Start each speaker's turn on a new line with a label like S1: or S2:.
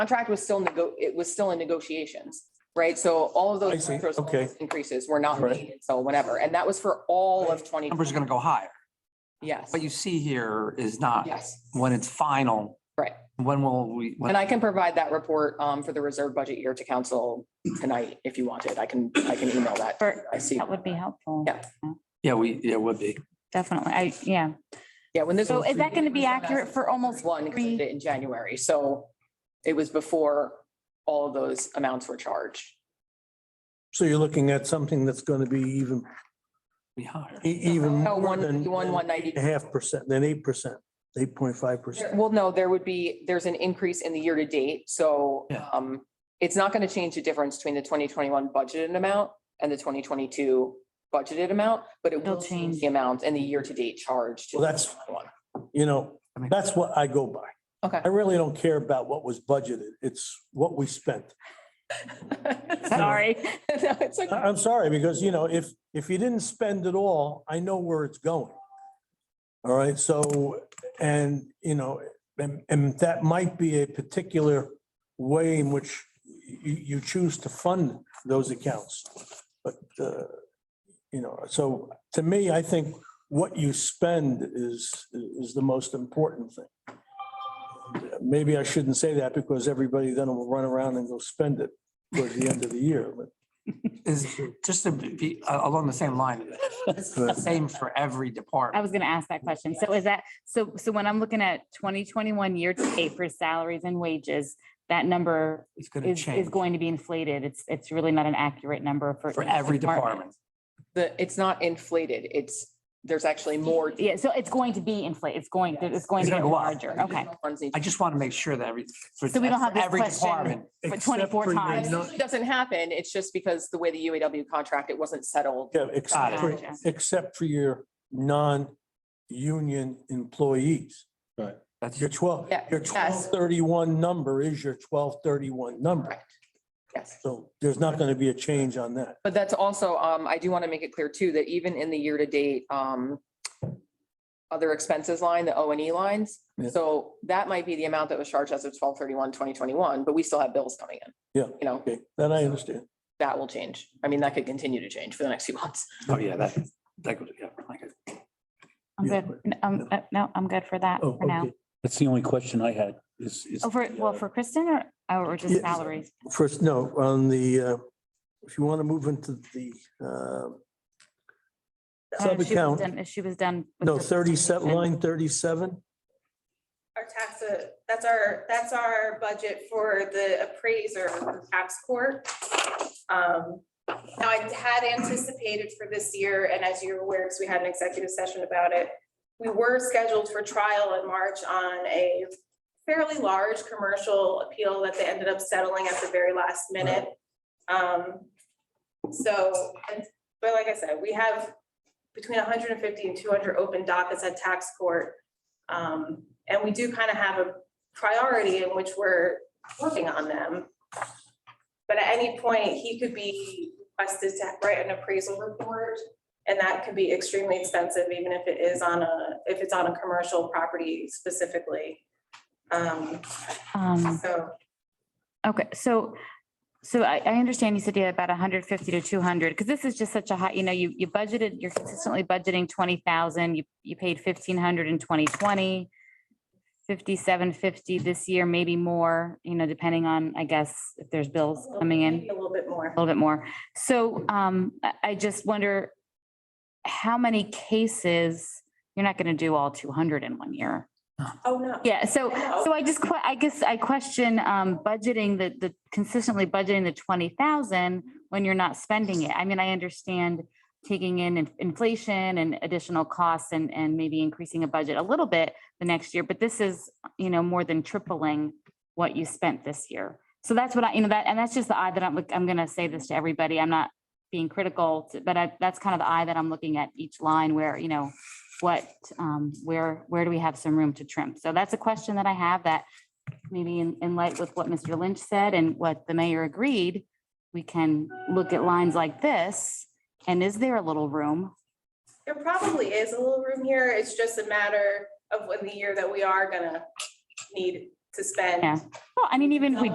S1: contract was still nego, it was still in negotiations, right? So all of
S2: I
S1: those
S2: see.
S1: retro
S2: Okay.
S1: increases were not
S2: Right.
S1: needed, so whenever, and that was for all of twenty.
S3: Numbers are gonna go higher.
S1: Yes,
S3: What you see here is not
S1: yes,
S3: when it's final.
S1: Right.
S3: When will we? when-
S1: and I can provide that report um for the reserve budget year to council tonight if you wanted. I can, I can email that. to you. I see.
S4: That would be helpful.
S1: Yeah.
S3: Yeah, we, yeah, would be.
S4: Definitely. I, yeah.
S1: Yeah, when this.
S4: So is that going to be accurate for almost
S1: One 'cause I
S4: three?
S1: did it in January, so it was before all of those amounts were charged.
S2: So you're looking at something that's going to be even,
S3: Be higher.
S2: e- even
S1: No,
S2: more than.
S1: 151, 190.
S2: A half percent, then eight percent, eight point five
S1: There-
S2: percent.
S1: Well, no, there would be, there's an increase in the year to date, so
S3: Yeah.
S1: um, it's not going to change the difference between the twenty twenty-one budgeted amount and the twenty twenty-two budgeted amount, but it
S4: It'll
S1: will change
S4: change.
S1: the amount and the year to date charged.
S2: Well, that's- You know, that's what I go by.
S1: Okay.
S2: I really don't care about what was budgeted. It's what we spent.
S4: Sorry.
S1: No, it's okay.
S2: I, I'm sorry, because you know, if, if you didn't spend it all, I know where it's going. All right, so, and, you know, and, and that might be a particular way in which you, you choose to fund those accounts. But, uh, you know, so to me, I think what you spend is, is the most important thing. Maybe I shouldn't say that because everybody then will run around and go spend it towards the end of the year, but
S3: Is just to be uh, along the same line. It's the Same for every
S4: I
S3: department.
S4: was going to ask that question. So is that, so, so when I'm looking at twenty twenty-one year to date for salaries and wages, that number
S3: It's gonna
S4: is,
S3: change
S4: is going to be inflated. It's, it's really not an accurate number for.
S3: for
S4: each
S3: every department.
S1: The, it's not inflated, it's, there's actually more.
S4: Yeah, so it's going to be inflated. It's going, it's going
S3: It's
S4: to
S3: gonna
S4: get
S3: go up.
S4: larger. Okay.
S1: Ones need to-
S3: I just want to make sure that every. for-
S4: So we don't
S3: for
S4: have this
S3: Every
S4: question.
S3: department.
S4: For
S2: Except
S4: 24
S2: your
S4: times.
S2: non-
S1: It Doesn't happen, it's just because the way the UAW contract, it wasn't settled.
S2: Yeah, except for,
S4: Gotcha.
S2: except for your non-union employees.
S3: That's
S2: Your twelve,
S1: Yeah,
S2: your twelve
S1: yes.
S2: thirty-one number is your twelve thirty-one number.
S1: Correct. Yes.
S2: So there's not going to be a change on that.
S1: But that's also, um, I do want to make it clear too, that even in the year to date, um, other expenses line, the O and E lines.
S2: Yeah.
S1: So that might be the amount that was charged as of 2021, but we still have bills coming in.
S2: Yeah.
S1: You know,
S2: Okay, then I understand.
S1: that will change. I mean, that could continue to change for the next few months.
S3: Oh, yeah, that, that goes, yeah. I get it.
S4: I'm
S2: Yeah,
S4: good. N- Um, uh, no, I'm good for that
S2: Oh,
S4: for now.
S2: okay.
S5: That's the only question I had is. is
S4: Oh, for,
S5: the,
S4: well,
S5: uh,
S4: for Kristen or, or just
S2: Yeah.
S4: salaries?
S2: First, no, on the, uh, if you want to move into the um,
S4: Uh, if she was
S2: sub-account,
S4: done- If she was done. with
S2: no,
S4: this
S2: thirty-seven,
S4: presentation.
S2: line thirty-seven,
S6: Our tax, uh, that's our, that's our budget for the appraiser for tax court. Um, Now, I had anticipated for this year, and as you're aware, because we had an executive session about it, we were scheduled for trial in March on a fairly large commercial appeal that they ended up settling at the very last minute. Um, So, and- but like I said, we have between 150 and 200 open dockets at tax court. Um, and we do kind of have a priority in which we're working on them. But at any point, he could be requested to write an appraisal report. And that could be extremely expensive, even if it is on a, if it's on a commercial property specifically. Um,
S4: Um,
S6: so
S4: okay, so, so I, I understand you said you had about hundred fifty to two hundred, because this is just such a high, you know, you, you budgeted, you're consistently budgeting twenty thousand, you, you paid fifteen hundred in twenty twenty. Fifty-seven fifty this year, maybe more, you know, depending on, I guess, if there's bills coming in. Oh,
S6: A little bit more.
S4: a little bit more. So um, I, I just wonder how many cases, you're not going to do all two hundred in one year.
S6: Oh, no.
S4: Yeah, so, so I just, que- I guess I question um, budgeting the, the consistently budgeting the twenty thousand when you're not spending it. I mean, I understand taking in in- inflation and additional costs and, and maybe increasing a budget a little bit the next year, but this is, you know, more than tripling what you spent this year. So that's what I, you know, that, and that's just the eye that I'm, look- I'm gonna say this to everybody. I'm not being critical, to- but I, that's kind of the eye that I'm looking at each line where, you know, what, um, where, where do we have some room to trim? So that's a question that I have that maybe in, in light with what Mr. Lynch said and what the mayor agreed, we can look at lines like this. And is there a little room?
S6: There probably is a little room here. It's just a matter of when the year that we are gonna need to spend.
S4: Yeah. Well, I mean, even if we